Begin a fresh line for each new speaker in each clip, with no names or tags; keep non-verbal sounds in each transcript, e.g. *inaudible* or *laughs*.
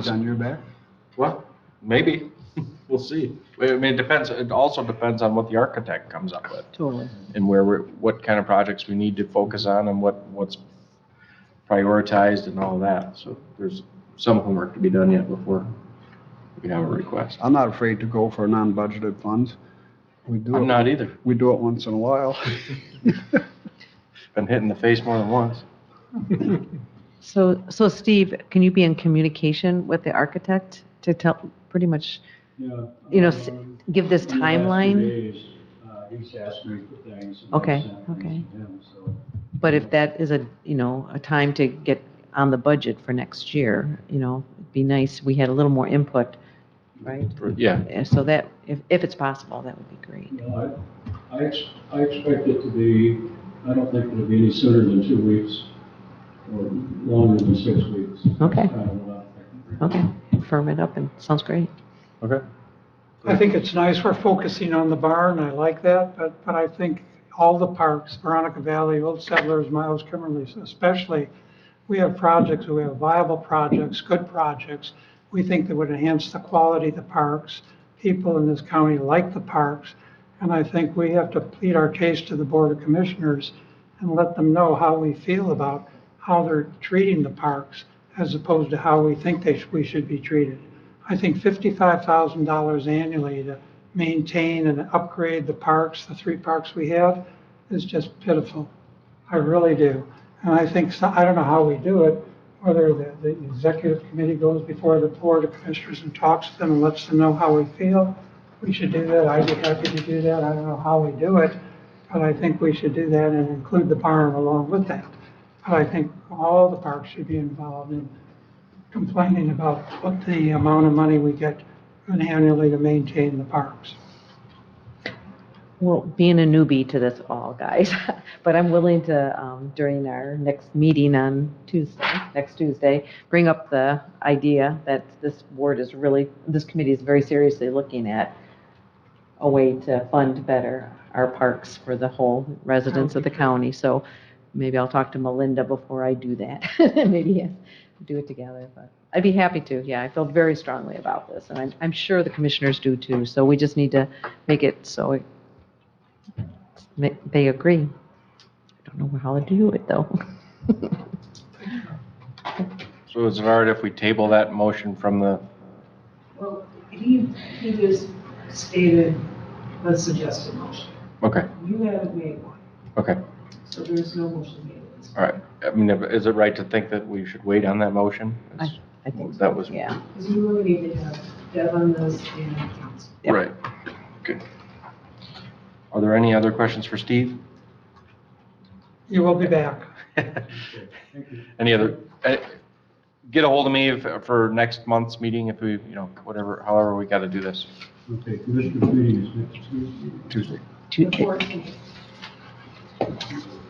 It's on your back?
Well, maybe, *laughs* we'll see. I mean, it depends, it also depends on what the architect comes up with
Totally.
and where, we're what kind of projects we need to focus on and what, what's prioritized and all that. So there's some homework to be done yet before we have a request.
I'm not afraid to go for non-budgeted funds. We do
I'm
it,
not either.
we do it once in a *laughs* while.
Been hit in the face more than once.
So, so Steve, can you be in communication with the architect to tell, pretty much,
Yeah.
you know, s-
um,
give this
in the last few
timeline?
days, uh, He's asked me for things. and I've
Okay,
sent things
okay.
to him, so,
But if that is a, you know, a time to get on the budget for next year, you know, it'd be nice, we had a little more input, right?
Yeah,
And So that, if, if it's possible, that would be great.
you know, I, I ex- I expect it to be, I don't think it'll be any sooner than two weeks or longer than six weeks. That's
Okay.
kind of what I'm thinking.
Okay, firm it up and, sounds great.
okay.
I think it's nice we're focusing on the barn, I like that, but, but I think all the parks, Veronica Valley, Old Settlers, Miles Kimmerly's especially, we have projects, we have viable projects, good projects, we think that would enhance the quality of the parks. People in this county like the parks, and I think we have to plead our case to the Board of Commissioners and let them know how we feel about how they're treating the parks as opposed to how we think they, sh- we should be treated. I think $55,000 annually to maintain and upgrade the parks, the three parks we have, is just pitiful. I really do. And I think, so- I don't know how we do it, whether the, the executive committee goes before the board of commissioners and talks to them and lets them know how we feel. We should do that. I'd be happy to do that. I don't know how we do it, but I think we should do that and include the barn along with that. But I think all the parks should be involved in complaining about what the amount of money we get annually to maintain the parks.
Well, being a newbie to this all, guys, *laughs* but I'm willing to, um, during our next meeting on Tuesday, next Tuesday, bring up the idea that this board is really, this committee is very seriously looking at a way to fund better our parks for the whole residents of the county. So maybe I'll talk to Melinda before I do that. *laughs* Maybe yes, do it together, but I'd be happy to. Yeah, I feel very strongly about this, and I'm, I'm sure the commissioners do too. So we just need to make it so it Ma- They agree. I don't know how to do it, though. *laughs*
So is it all right if we table that motion from the,
Well, he, he just stated the suggested motion.
okay,
You haven't made one,
okay.
so there's no motion made. at this point.
All right. I mean, is it right to think that we should wait on that motion?
I think,
That was.
yeah.
Because you really need to have Deb on this and council.
Yep.
Right, good. Are there any other questions for Steve? *laughs*
You will be back.
Any other, eh, get a hold of me if- for next month's meeting if we, you know, whatever, however we got to do this.
Okay, commissioner's meeting is next
Tuesday.
Tuesday.
Two-
The 14th.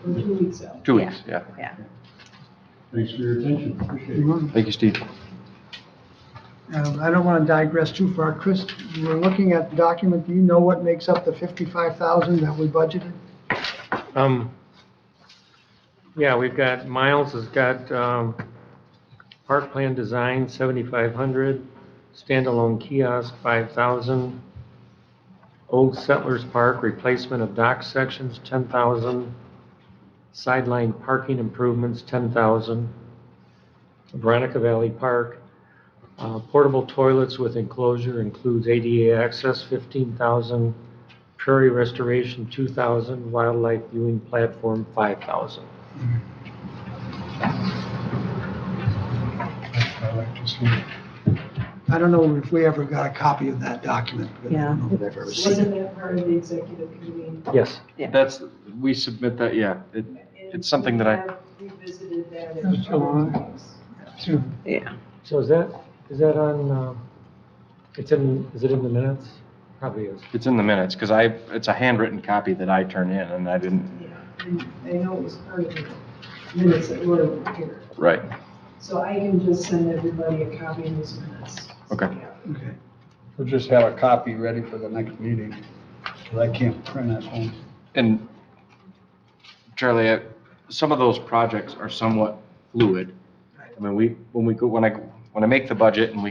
Or two weeks out.
Two weeks, yeah.
Yeah.
Thanks for your attention, appreciate it.
Thank you, Steve.
Um, I don't want to digress too far. Chris, we're looking at the document. Do you know what makes up the 55,000 that we budgeted?
Um, yeah, we've got, Miles has got, um, park plan design, seventy-five hundred, standalone kiosk, five thousand, Old Settlers Park, replacement of dock sections, ten thousand, sideline parking improvements, ten thousand, Veronica Valley Park, uh, portable toilets with enclosure includes ADA access, fifteen thousand, Prairie Restoration, two thousand, Wildlife Viewing Platform, five thousand.
I don't know if we ever got a copy of that document. because I don't know if I've ever seen it.
Wasn't that part of the executive committee?
Yes.
Yeah.
That's, we submit that, yeah. It- It's something that I-
And we have Revisited that at
That's
other
July.
times.
Soon.
Yeah.
So is that, is that on, uh, it's in, is it in the minutes? Probably is.
It's in the minutes because I, it's a handwritten copy that I turn in and I didn't.
Yeah, and I know it was part of the minutes that were here.
Right.
So I can just send everybody a copy of those minutes.
Okay.
Okay. We'll just have a copy ready for the next meeting, because I can't print at home.
And Charlie, I- some of those projects are somewhat fluid. I mean, we, when we go, when I when I make the budget and we